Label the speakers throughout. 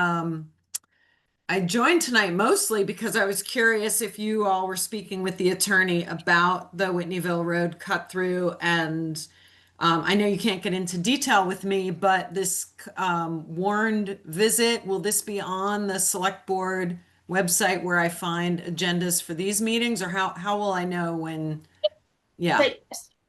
Speaker 1: um, I joined tonight mostly because I was curious if you all were speaking with the attorney about the Whitneyville Road cut through and um, I know you can't get into detail with me, but this um, warned visit, will this be on the select board website where I find agendas for these meetings or how, how will I know when? Yeah,
Speaker 2: Site-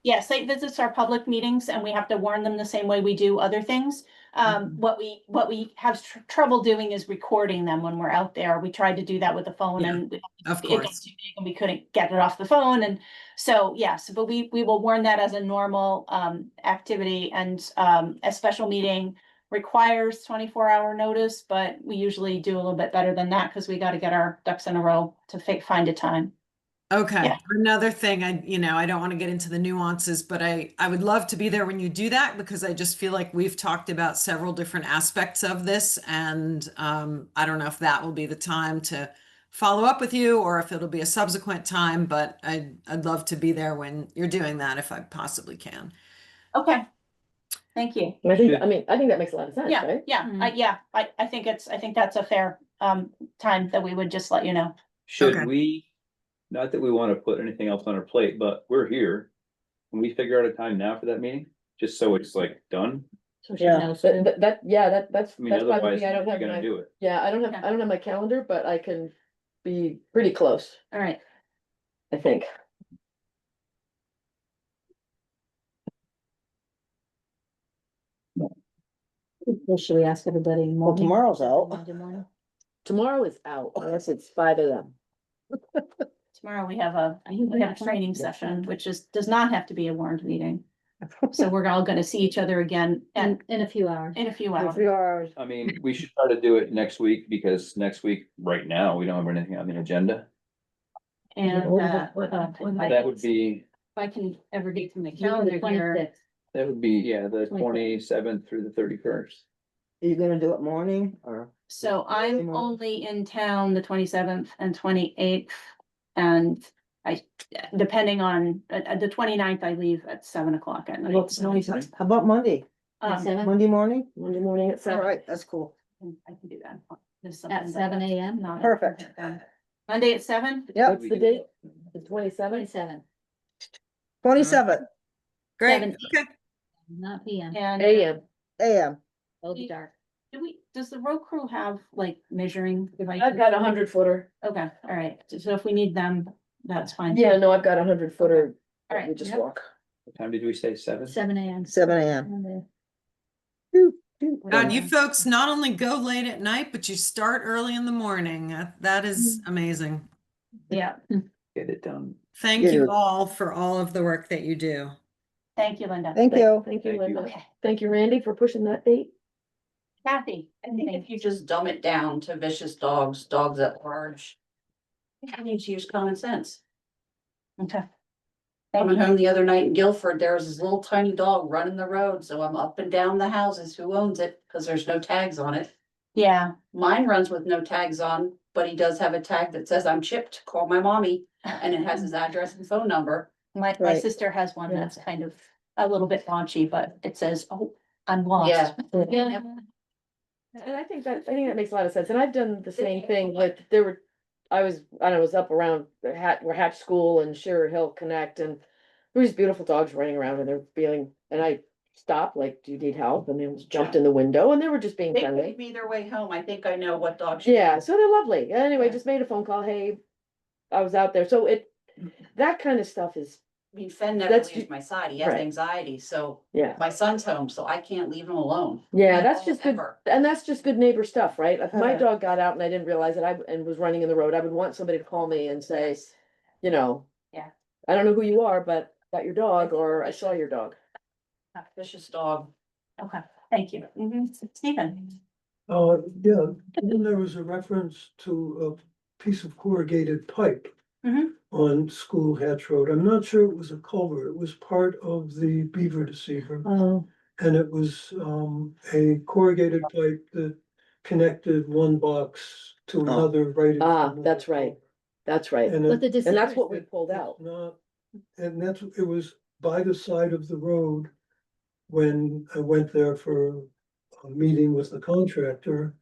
Speaker 2: Yeah, site visits are public meetings and we have to warn them the same way we do other things.
Speaker 1: Mm-hmm.
Speaker 2: Um, what we, what we have tr- trouble doing is recording them when we're out there. We tried to do that with the phone
Speaker 1: Yeah,
Speaker 2: and it
Speaker 1: of
Speaker 2: got
Speaker 1: course.
Speaker 2: too big and we couldn't get it off the phone and so, yes, but we, we will warn that as a normal, um, activity and, um, a special meeting requires twenty-four hour notice, but we usually do a little bit better than that because we got to get our ducks in a row to fi- find a time.
Speaker 1: Okay,
Speaker 2: Yeah.
Speaker 1: another thing, I, you know, I don't want to get into the nuances, but I, I would love to be there when you do that because I just feel like we've talked about several different aspects of this and um, I don't know if that will be the time to follow up with you or if it'll be a subsequent time, but I, I'd love to be there when you're doing that if I possibly can.
Speaker 2: Okay. Thank you.
Speaker 3: I think,
Speaker 4: Should-
Speaker 3: I mean, I think that makes a lot of sense,
Speaker 2: Yeah,
Speaker 3: right?
Speaker 2: yeah, I, yeah, I, I think it's, I think that's a fair, um, time that we would just let you know.
Speaker 1: Okay.
Speaker 4: Should we, not that we want to put anything else on our plate, but we're here. Can we figure out a time now for that meeting? Just so it's like done?
Speaker 3: Yeah. But but that, yeah, that, that's,
Speaker 4: I mean,
Speaker 3: that's probably,
Speaker 4: otherwise,
Speaker 3: me. I
Speaker 4: you're
Speaker 3: don't have
Speaker 4: gonna
Speaker 3: my,
Speaker 4: do it.
Speaker 3: yeah, I don't
Speaker 2: Yeah.
Speaker 3: have, I don't have my calendar, but I can be pretty close,
Speaker 2: All right.
Speaker 3: I think.
Speaker 5: Well, should we ask everybody? in the
Speaker 6: Well,
Speaker 5: morning?
Speaker 6: tomorrow's out.
Speaker 5: Monday morning?
Speaker 3: Tomorrow is out, unless it's five of them.
Speaker 2: Tomorrow we have a,
Speaker 5: Are you
Speaker 2: we have a
Speaker 5: back?
Speaker 2: training
Speaker 3: Yeah.
Speaker 2: session, which is, does not have to be a warned meeting. So we're all gonna see each other again
Speaker 5: In,
Speaker 2: and
Speaker 5: in a few hours.
Speaker 2: in a few
Speaker 3: A
Speaker 2: hours.
Speaker 3: few hours.
Speaker 4: I mean, we should try to do it next week because next week, right now, we don't have anything on the agenda.
Speaker 2: And,
Speaker 5: What-
Speaker 2: uh,
Speaker 5: what-
Speaker 2: uh,
Speaker 5: what-
Speaker 2: if I-
Speaker 4: That would be,
Speaker 2: If I can ever get from the
Speaker 5: June the
Speaker 2: calendar here,
Speaker 5: 26th.
Speaker 4: that would be, yeah, the twenty-seventh through the thirty-first.
Speaker 6: Are you gonna do it morning or?
Speaker 2: so I'm
Speaker 6: Tomorrow.
Speaker 2: only in town the twenty-seventh and twenty-eighth. And I, depending on, uh, uh, the 29th, I leave at seven o'clock at night.
Speaker 6: How about Monday?
Speaker 2: Um,
Speaker 5: Seven-
Speaker 6: Monday morning?
Speaker 3: Monday morning at
Speaker 6: All
Speaker 3: seven.
Speaker 6: right, that's cool.
Speaker 2: can- I can do that. There's
Speaker 5: At
Speaker 2: something that-
Speaker 5: seven AM,
Speaker 2: not-
Speaker 6: Perfect.
Speaker 2: Monday at seven?
Speaker 6: Yep,
Speaker 3: What's the date? The twenty-seventh?
Speaker 5: twenty-seven,
Speaker 6: twenty-seven
Speaker 1: Great,
Speaker 5: Seven.
Speaker 1: okay.
Speaker 5: not PM,
Speaker 2: And
Speaker 3: AM.
Speaker 6: AM.
Speaker 5: it'll be dark.
Speaker 2: do we, does the road crew have like measuring devices?
Speaker 3: I've got a hundred footer.
Speaker 2: Okay, all right. So if we need them, that's fine.
Speaker 3: Yeah, no, I've got a hundred footer.
Speaker 2: All
Speaker 3: We
Speaker 2: right.
Speaker 3: just
Speaker 5: yep.
Speaker 3: walk.
Speaker 4: What time did we say? Seven?
Speaker 5: Seven AM.
Speaker 6: Seven AM.
Speaker 5: Monday.
Speaker 1: God, you folks not only go late at night, but you start early in the morning. That- That is amazing.
Speaker 2: Yeah,
Speaker 4: Get it done.
Speaker 1: Thank you
Speaker 6: Yeah.
Speaker 1: all for all of the work that you do.
Speaker 2: thank you, Linda.
Speaker 6: Thank you.
Speaker 3: Thank you,
Speaker 4: Thank you.
Speaker 3: Linda.
Speaker 2: Okay,
Speaker 3: Thank you, Randy, for pushing that date.
Speaker 2: Kathy.
Speaker 7: I think
Speaker 2: Thank
Speaker 7: if you just dumb it down to vicious dogs, dogs at large. You need to use common sense.
Speaker 2: Okay.
Speaker 7: Coming
Speaker 2: Thank you.
Speaker 7: home the other night in Guilford, there was this little tiny dog running the road, so I'm up and down the houses. Who owns it? Cause there's no tags on it.
Speaker 2: Yeah,
Speaker 7: Mine runs with no tags on, but he does have a tag that says I'm chipped, call my mommy, and it has his address and phone number.
Speaker 2: my, my
Speaker 6: Right.
Speaker 2: sister has one that's kind of a little bit raunchy, but it says, oh, I'm
Speaker 7: Yeah.
Speaker 2: lost.
Speaker 5: Yeah.
Speaker 3: And I think that, I think that makes a lot of sense, and I've done the same thing, like, there were, I was, I don't know, was up around the Hat, where Hatch School and Shearer Hill Connect, and there was beautiful dogs running around, and they're feeling, and I stopped, like, do you need help, and they almost jumped in the window, and they were just being
Speaker 7: They gave
Speaker 3: friendly.
Speaker 7: me their way home. I think I know what dog. she
Speaker 3: Yeah,
Speaker 7: is.
Speaker 3: so they're lovely, anyway,
Speaker 7: Yeah.
Speaker 3: just made a phone call, hey, I was out there, so it, that kind of stuff is,
Speaker 7: I mean, Fenn never
Speaker 3: That's ju-
Speaker 7: leaves my side. He has
Speaker 3: Right.
Speaker 7: anxiety, so
Speaker 3: yeah,
Speaker 7: my son's home, so I can't leave him alone.
Speaker 3: yeah, that's just good,
Speaker 7: Ever.
Speaker 3: and that's just good neighbor stuff, right? If my
Speaker 6: Uh-huh.
Speaker 3: dog got out and I didn't realize it, I, and was running in the road, I would want somebody to call me and say, you know.
Speaker 2: Yeah.
Speaker 3: I don't know who you are, but got your dog or I saw your dog.
Speaker 7: Vicious dog.
Speaker 2: Okay, thank you. Mhm. Stephen.
Speaker 8: Uh, yeah, then there was a reference to a piece of corrugated pipe.
Speaker 5: Mm-hmm.
Speaker 2: Mhm.
Speaker 8: On School Hatch Road. I'm not sure it was a culvert. It was part of the beaver deceiver.
Speaker 3: Oh.
Speaker 8: And it was, um, a corrugated pipe that connected one box to another right. in
Speaker 3: Oh. Ah,
Speaker 8: front of
Speaker 3: that's
Speaker 8: the
Speaker 3: right.
Speaker 8: culvert.
Speaker 3: That's right.
Speaker 8: And
Speaker 5: But
Speaker 8: it-
Speaker 5: the
Speaker 3: And
Speaker 5: decision,
Speaker 3: that's what we pulled
Speaker 8: it's
Speaker 3: out.
Speaker 8: Not, and that's, it was by the side of the road when I went there for a meeting with the contractor.